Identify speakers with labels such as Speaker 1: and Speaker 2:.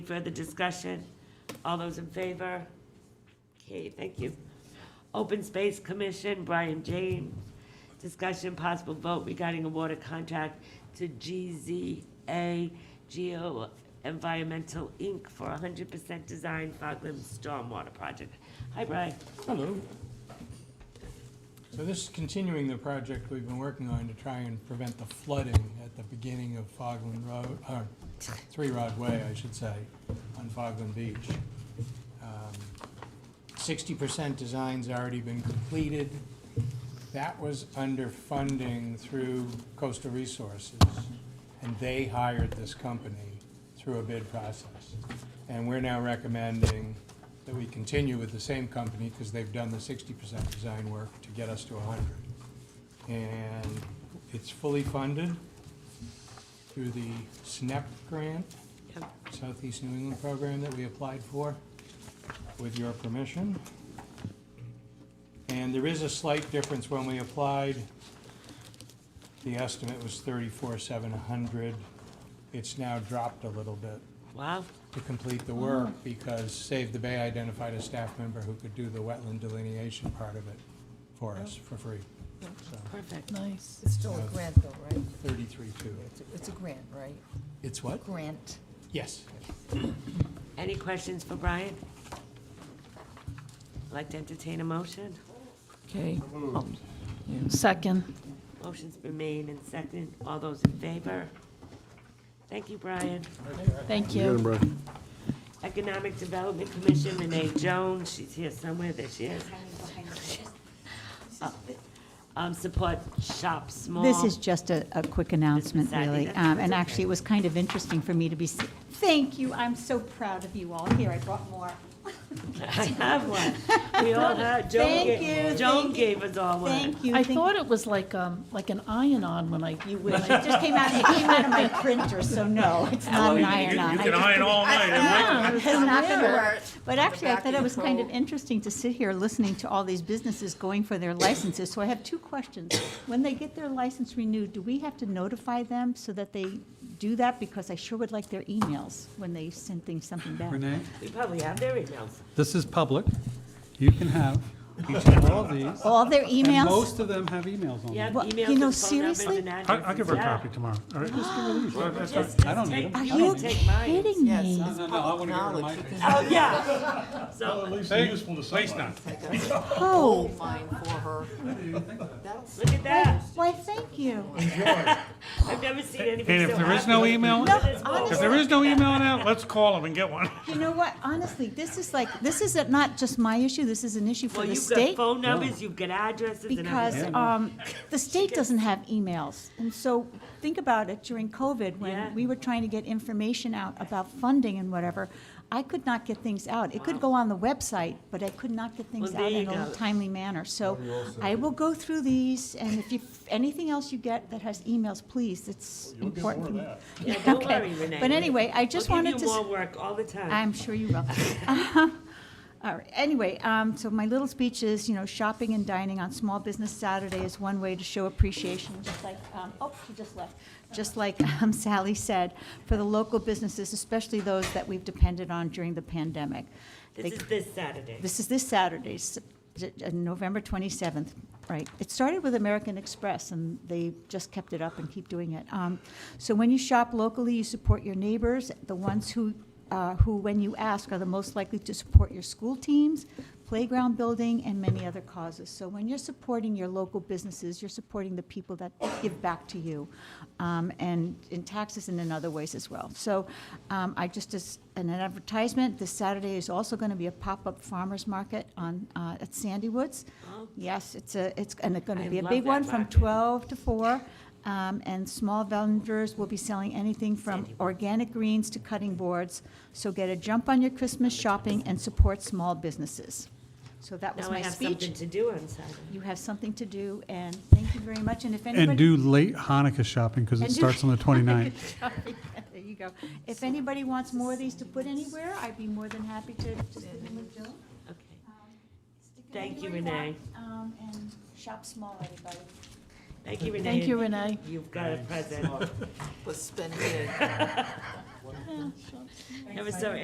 Speaker 1: Further discussion? All those in favor? Okay, thank you. Open Space Commission, Brian James. Discussion possible vote regarding a water contract to GZA Geo Environmental Inc. for 100% design Fogland Stormwater Project. Hi, Brian.
Speaker 2: Hello. So this is continuing the project we've been working on to try and prevent the flooding at the beginning of Fogland Road, or Three Rod Way, I should say, on Fogland Beach. Sixty percent design's already been completed. That was under funding through Coastal Resources, and they hired this company through a bid process. And we're now recommending that we continue with the same company, because they've done the sixty percent design work to get us to hundred. And it's fully funded through the SNEP grant, Southeast New England program that we applied for, with your permission. And there is a slight difference when we applied. The estimate was thirty-four, seven hundred. It's now dropped a little bit
Speaker 1: Wow,
Speaker 2: to complete the work because Save the Bay identified a staff member who could do the wetland delineation part of it for us for free. So
Speaker 1: perfect.
Speaker 3: Nice.
Speaker 4: It's still a
Speaker 2: Yeah.
Speaker 4: grant though, right?
Speaker 2: thirty-three, two.
Speaker 4: It's a- It's a grant, right?
Speaker 2: It's what?
Speaker 4: Grant.
Speaker 2: Yes.
Speaker 1: Any questions for Brian? Like to entertain a motion?
Speaker 3: Okay. Second.
Speaker 1: Motion's been made and seconded. All those in favor? Thank you, Brian.
Speaker 3: Thank
Speaker 5: You got him,
Speaker 3: you.
Speaker 5: bro.
Speaker 1: Economic Development Commission, Renee Jones, she's here somewhere, there she is. Uh, Um, support shop small.
Speaker 6: Oh.
Speaker 7: This is just a, a quick announcement,
Speaker 1: Miss Aggie,
Speaker 7: really.
Speaker 1: that's-
Speaker 7: Um,
Speaker 1: that's
Speaker 7: And
Speaker 1: okay.
Speaker 7: actually, it was kind of interesting for me to be, s- thank you, I'm so proud of you all. Here, I brought more.
Speaker 1: I have one. We all have, Joan
Speaker 7: Thank
Speaker 1: gave,
Speaker 7: you,
Speaker 1: Joan
Speaker 7: thank you.
Speaker 1: gave us all one.
Speaker 7: Thank you.
Speaker 3: I
Speaker 7: thank-
Speaker 3: thought it was like, um, like an iron-on when I, you, when
Speaker 7: It
Speaker 3: I,
Speaker 7: just came out, it came out of my printer, so no, it's not an
Speaker 6: Oh, You-
Speaker 7: iron-on.
Speaker 6: You
Speaker 7: I
Speaker 6: can
Speaker 7: just-
Speaker 6: iron all night. and wait.
Speaker 7: Yeah, It's not gonna work. But actually, I thought it was kind of interesting to sit here listening to all these businesses going for their licenses. So I have two questions. When they get their license renewed, do we have to notify them so that they do that? Because I sure would like their emails when they send things, something back.
Speaker 8: Renee,
Speaker 1: We probably have their emails.
Speaker 8: this is public. You can have each of all of these.
Speaker 7: All their
Speaker 8: And
Speaker 7: emails?
Speaker 8: most of them have emails on
Speaker 1: Yeah,
Speaker 8: them.
Speaker 7: Well,
Speaker 1: emails
Speaker 7: you know,
Speaker 1: and phone numbers
Speaker 7: seriously?
Speaker 1: and
Speaker 6: I-
Speaker 1: addresses.
Speaker 6: I'll give her a
Speaker 1: Yeah.
Speaker 6: copy tomorrow, all right?
Speaker 1: Just, just
Speaker 8: I don't
Speaker 1: take-
Speaker 8: need 'em.
Speaker 7: Are
Speaker 1: you
Speaker 7: you
Speaker 1: can take mine.
Speaker 7: kidding me?
Speaker 8: No, no, no, I want to go to my.
Speaker 1: Oh, yeah. So,
Speaker 6: least they're useful to someone.
Speaker 7: Oh,
Speaker 4: Mine for her.
Speaker 1: look at that.
Speaker 7: why, thank you.
Speaker 1: I've never seen anybody
Speaker 6: And
Speaker 1: so
Speaker 6: if there is
Speaker 1: happy.
Speaker 6: no email,
Speaker 7: No,
Speaker 6: if there is no email now, let's call them and get one.
Speaker 7: You know what, honestly, this is like, this is not just my issue, this is an issue for
Speaker 1: Well,
Speaker 7: the
Speaker 1: you've got
Speaker 7: state.
Speaker 1: phone numbers, you've got addresses and
Speaker 7: Because
Speaker 1: everything.
Speaker 7: um, the state doesn't have emails. And so think about it during COVID,
Speaker 1: Yeah.
Speaker 7: when we were trying to get information out about funding and whatever. I could not get things out. It could go on the website, but I could not get things
Speaker 1: Well, there
Speaker 7: out in
Speaker 1: you go.
Speaker 7: a timely manner. So I will go through these, and if you, anything else you get that has emails, please, it's important for me.
Speaker 1: Yeah, don't
Speaker 7: Okay.
Speaker 1: worry, Renee.
Speaker 7: But anyway, I just wanted to.
Speaker 1: We'll
Speaker 7: s-
Speaker 1: give you more work all the time.
Speaker 7: I'm sure you will. All right, anyway, um, so my little speech is, you know, shopping and dining on Small Business Saturday is one way to show appreciation, just like, um, oh, she just left. Just like um, Sally said, for the local businesses, especially those that we've depended on during the pandemic.
Speaker 1: This
Speaker 7: They-
Speaker 1: is this Saturday.
Speaker 7: this is this Saturday, s- d- uh, November 27th, right. It started with American Express, and they just kept it up and keep doing it. Um, So when you shop locally, you support your neighbors, the ones who, uh, who, when you ask, are the most likely to support your school teams, playground building, and many other causes. So when you're supporting your local businesses, you're supporting the people that give back to you, um, and in taxes and in other ways as well. So um, I just, as an advertisement, this Saturday is also going to be a pop-up farmer's market on, uh, at Sandy Woods. Yes, it's a, it's, and it's going
Speaker 1: Oh. I
Speaker 7: to be a
Speaker 1: love
Speaker 7: big
Speaker 1: that
Speaker 7: one from
Speaker 1: market.
Speaker 7: 12 to 4. um, And small vendors will be selling anything from organic greens to cutting boards. So get a jump on your Christmas shopping and support small businesses. So that was
Speaker 1: Now I
Speaker 7: my
Speaker 1: have
Speaker 7: speech.
Speaker 1: something to do on Saturday.
Speaker 7: You have something to do, and thank you very much. And if anybody.
Speaker 8: And do late Hanukkah shopping because
Speaker 7: And
Speaker 8: it
Speaker 7: do-
Speaker 8: starts on the 29th.
Speaker 7: There you go. If anybody wants more of these to put anywhere, I'd be more than happy to just give them a Jill.
Speaker 1: Okay.
Speaker 7: Stick it
Speaker 1: Thank you,
Speaker 7: anywhere
Speaker 1: Renee.
Speaker 7: want, Um, and shop small, everybody.
Speaker 1: Thank you, Renee.
Speaker 3: thank you, Renee.
Speaker 1: You've got a present.
Speaker 4: Was spending it.
Speaker 1: Never saw